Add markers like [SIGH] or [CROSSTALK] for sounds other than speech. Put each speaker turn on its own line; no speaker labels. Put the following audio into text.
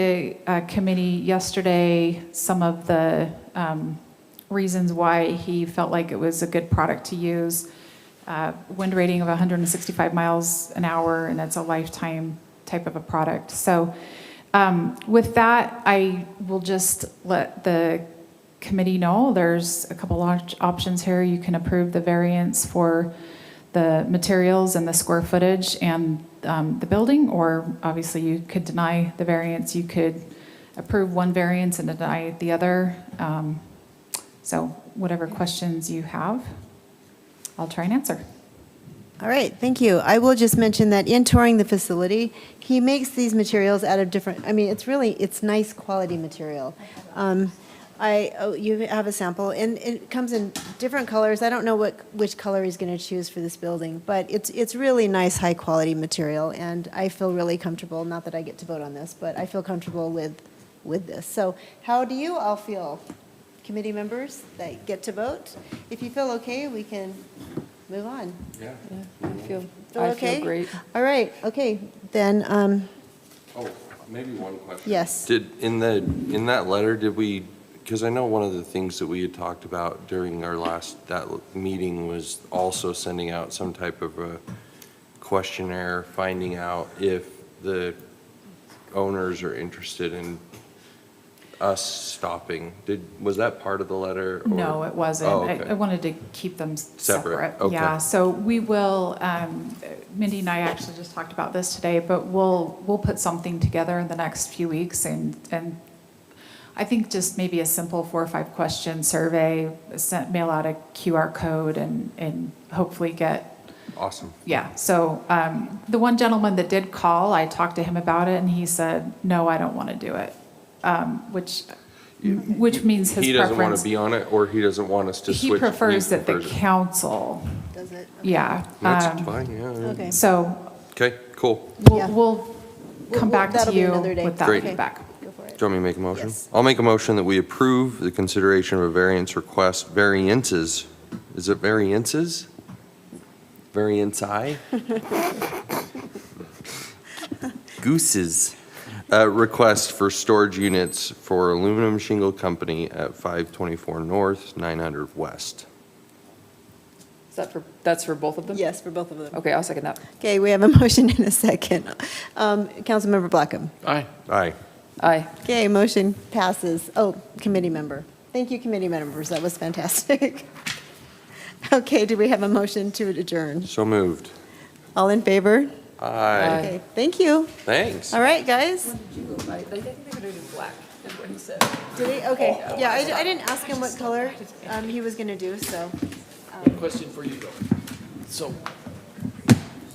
the uh, committee yesterday some of the um, reasons why he felt like it was a good product to use. Uh, Wind rating of 165 miles an hour, and that's a lifetime type of a product. So um, with that, I will just let the committee know there's a couple of options here. You can approve the variance for the materials and the square footage and um, the building, or obviously you could deny the variance. You could approve one variance and deny the other. Um, So whatever questions you have, I'll try and answer.
All right, thank you. I will just mention that in touring the facility, he makes these materials out of different, I mean, it's really, it's nice quality material. Um, I, oh, you have a sample, and it comes in different colors. I don't know what, which color he's going to choose for this building, but it's, it's really nice, high-quality material, and I feel really comfortable, not that I get to vote on this, but I feel comfortable with, with this. So how do you all feel, committee members that get to vote? If you feel okay, we can move on.
Yeah.
I feel,
Feel
I
okay?
feel great.
All right, okay, then, um,
Oh, maybe one question.
yes.
Did, in the, in that letter, did we, because I know one of the things that we had talked about during our last, that meeting was also sending out some type of a questionnaire, finding out if the owners are interested in us stopping. Did, was that part of the letter? or-
No, it wasn't.
Oh,
I-
okay.
I wanted to keep them s-
Separate,
separate.
okay.
Yeah, so we will, um, Mindy and I actually just talked about this today, but we'll, we'll put something together in the next few weeks and, and I think just maybe a simple four or five question survey, sent, mail out a QR code and, and hopefully get
Awesome.
yeah, so um, the one gentleman that did call, I talked to him about it, and he said, no, I don't want to do it, Um, which, which means his
He doesn't want to
preference.
be on it, or he doesn't want us to switch?
He prefers that the
prefers it.
council,
Does it?
yeah.
That's
um,
fine, yeah.
Okay.
So
Okay, cool.
Yeah.
we'll, we'll
We'll-
come back to
that'll be
you
another day.
with that
Great.
feedback.
Go for it.
Do you want me to make a motion?
Yes.
I'll make a motion that we approve the consideration of a variance request, variances. Is it variances? Variance I? Gooses. Uh, Request for storage units for aluminum shingle company at 524 North, 900 West.
Is that for, that's for both of them?
Yes, for both of them.
Okay, I'll second that.
Okay, we have a [LAUGHS] motion and a second. Um, Councilmember Blackham.
Aye.
Aye.
Aye.
Okay, motion passes. Oh, committee member. Thank you, committee members, that was fantastic. [LAUGHS] Okay, do we have a motion to adjourn?
So moved.
All in favor?
Aye.
Aye.
Okay, thank you.
Thanks.
All right, guys.
I think they're going to do black, is what he said.
Did he, okay, yeah, I, I didn't ask him what color, um, he was gonna do, so.
Question for you though. So